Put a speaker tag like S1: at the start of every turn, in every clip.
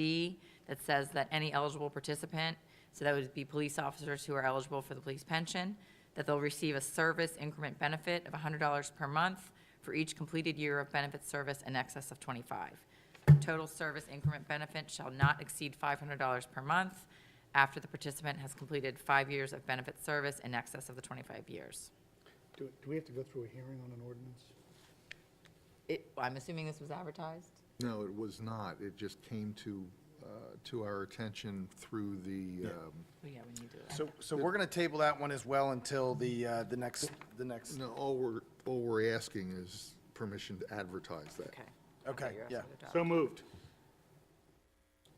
S1: D that says that any eligible participant, so that would be police officers who are eligible for the police pension, that they'll receive a service increment benefit of $100 per month for each completed year of benefit service in excess of 25. Total service increment benefit shall not exceed $500 per month after the participant has completed five years of benefit service in excess of the 25 years.
S2: Do, do we have to go through a hearing on an ordinance?
S1: It- I'm assuming this was advertised?
S3: No, it was not. It just came to, uh, to our attention through the, um,
S1: Well, Yeah, we need to.
S4: So, so we're going to table that one as well until the, uh, the next, the next,
S3: no, all we're, all we're asking is permission to advertise that.
S1: Okay.
S4: okay,
S1: You're
S4: yeah.
S1: asking to adopt.
S2: So moved.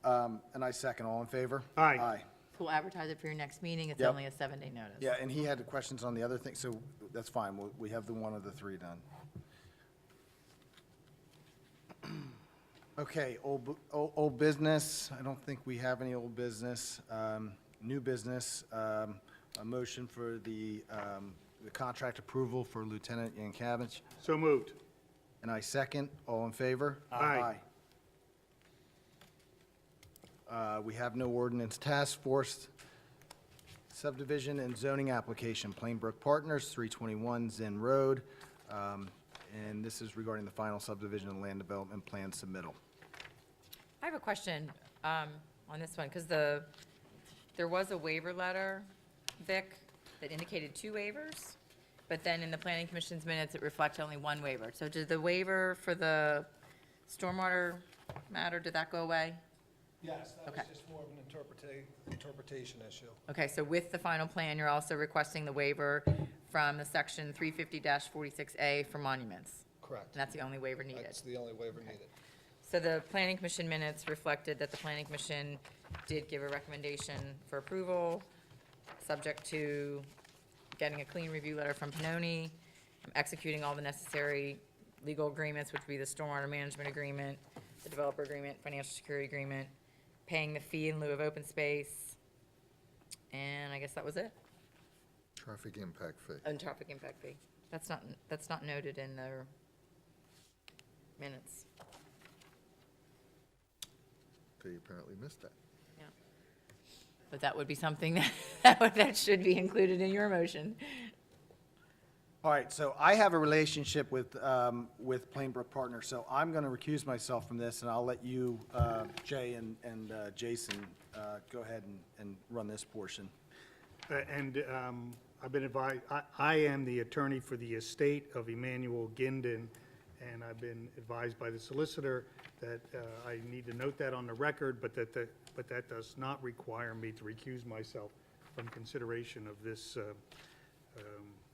S4: Um, And I second, all in favor?
S2: Aye.
S4: Aye.
S1: So we'll advertise it for your next meeting. It's
S4: Yep.
S1: only a seven-day notice.
S4: Yeah, and he had questions on the other thing, so that's fine, we, we have the one of the three done. Okay, old, bu- o- old business, I don't think we have any old business. Um, New business, um, a motion for the, um, the contract approval for Lieutenant Yankavich.
S2: So moved.
S4: And I second, all in favor?
S2: Aye.
S4: Aye. Uh, We have no ordinance task force subdivision and zoning application, Plainbrook Partners, 321 Zen Road. Um, And this is regarding the final subdivision and land development plan submittal.
S1: I have a question um, on this one, because the, there was a waiver letter, Vic, that indicated two waivers, but then in the planning commission's minutes, it reflects only one waiver. So did the waiver for the stormwater matter, did that go away?
S5: Yes, that was
S1: Okay.
S5: just more of an interpreta- interpretation issue.
S1: Okay, so with the final plan, you're also requesting the waiver from the section 350-46A for monuments,
S5: Correct.
S1: and that's the only waiver needed.
S5: That's the only waiver needed.
S1: So the planning commission minutes reflected that the planning commission did give a recommendation for approval, subject to getting a clean review letter from Pinoni, executing all the necessary legal agreements, which would be the stormwater management agreement, the developer agreement, financial security agreement, paying the fee in lieu of open space, and I guess that was it,
S3: Traffic impact fee.
S1: and traffic impact fee. That's not, that's not noted in the minutes.
S3: They apparently missed that.
S1: But that would be something that- that, would- that should be included in your motion.
S4: All right, so I have a relationship with, um, with Plainbrook Partners, so I'm going to recuse myself from this, and I'll let you, uh, Jay and, and uh, Jason, uh, go ahead and, and run this portion.
S2: Uh, And um, I've been advised, I, I am the attorney for the estate of Emmanuel Ginden, and I've been advised by the solicitor that uh, I need to note that on the record, but that, the- but that does not require me to recuse myself from consideration of this uh, um,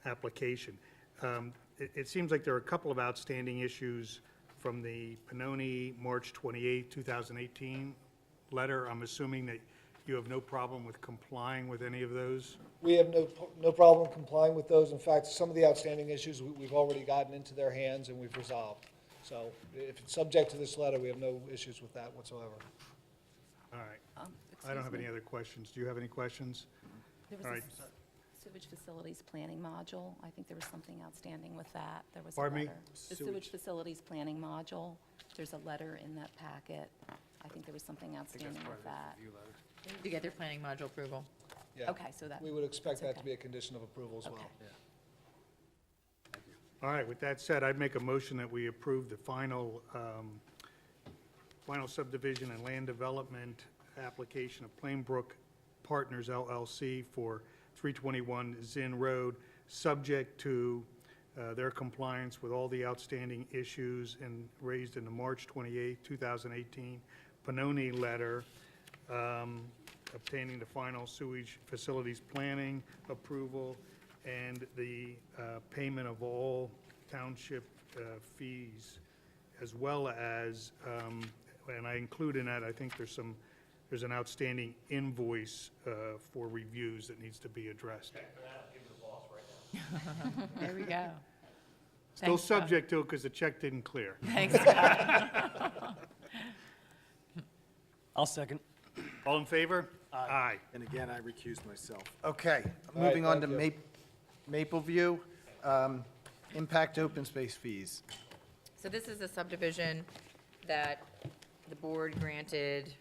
S2: application. Um, It, it seems like there are a couple of outstanding issues from the Pannoni, March 28, 2018 letter. I'm assuming that you have no problem with complying with any of those?
S5: We have no, no problem complying with those. In fact, some of the outstanding issues, we- we've already gotten into their hands and we've resolved. So if it's subject to this letter, we have no issues with that whatsoever.
S2: All right. I don't have any other questions. Do you have any questions?
S6: Oh, There was
S2: All
S6: a
S2: right.
S6: s- sewage facilities planning module. I think there was something outstanding with that. There was a
S2: Pardon me?
S6: letter. The sewage facilities planning module, there's a letter in that packet. I think there was something outstanding with that.
S1: To get their planning module approval.
S5: Yeah.
S6: Okay, so that,
S5: We would expect that
S6: that's
S5: to
S6: okay.
S5: be a condition of approval as well.
S6: Okay.
S2: All right, with that said, I'd make a motion that we approve the final, um, final subdivision and land development application of Plainbrook Partners LLC for 321 Zinn Road, subject to uh, their compliance with all the outstanding issues and raised in the March 28, 2018 Pannoni letter, um, obtaining the final sewage facilities planning approval, and the uh, payment of all township uh, fees, as well as, um, and I include in that, I think there's some, there's an outstanding invoice uh, for reviews that needs to be addressed.
S1: There we go. Thanks,
S2: Still
S1: Bob.
S2: subject to it because the check didn't clear.
S1: Thanks, Bob.
S7: I'll second.
S2: All in favor? Aye.
S4: And again, I recuse myself. Okay, moving on
S5: right,
S4: to Ma-
S5: thank
S4: Maple View, um, impact open space fees.
S1: So this is a subdivision that the board granted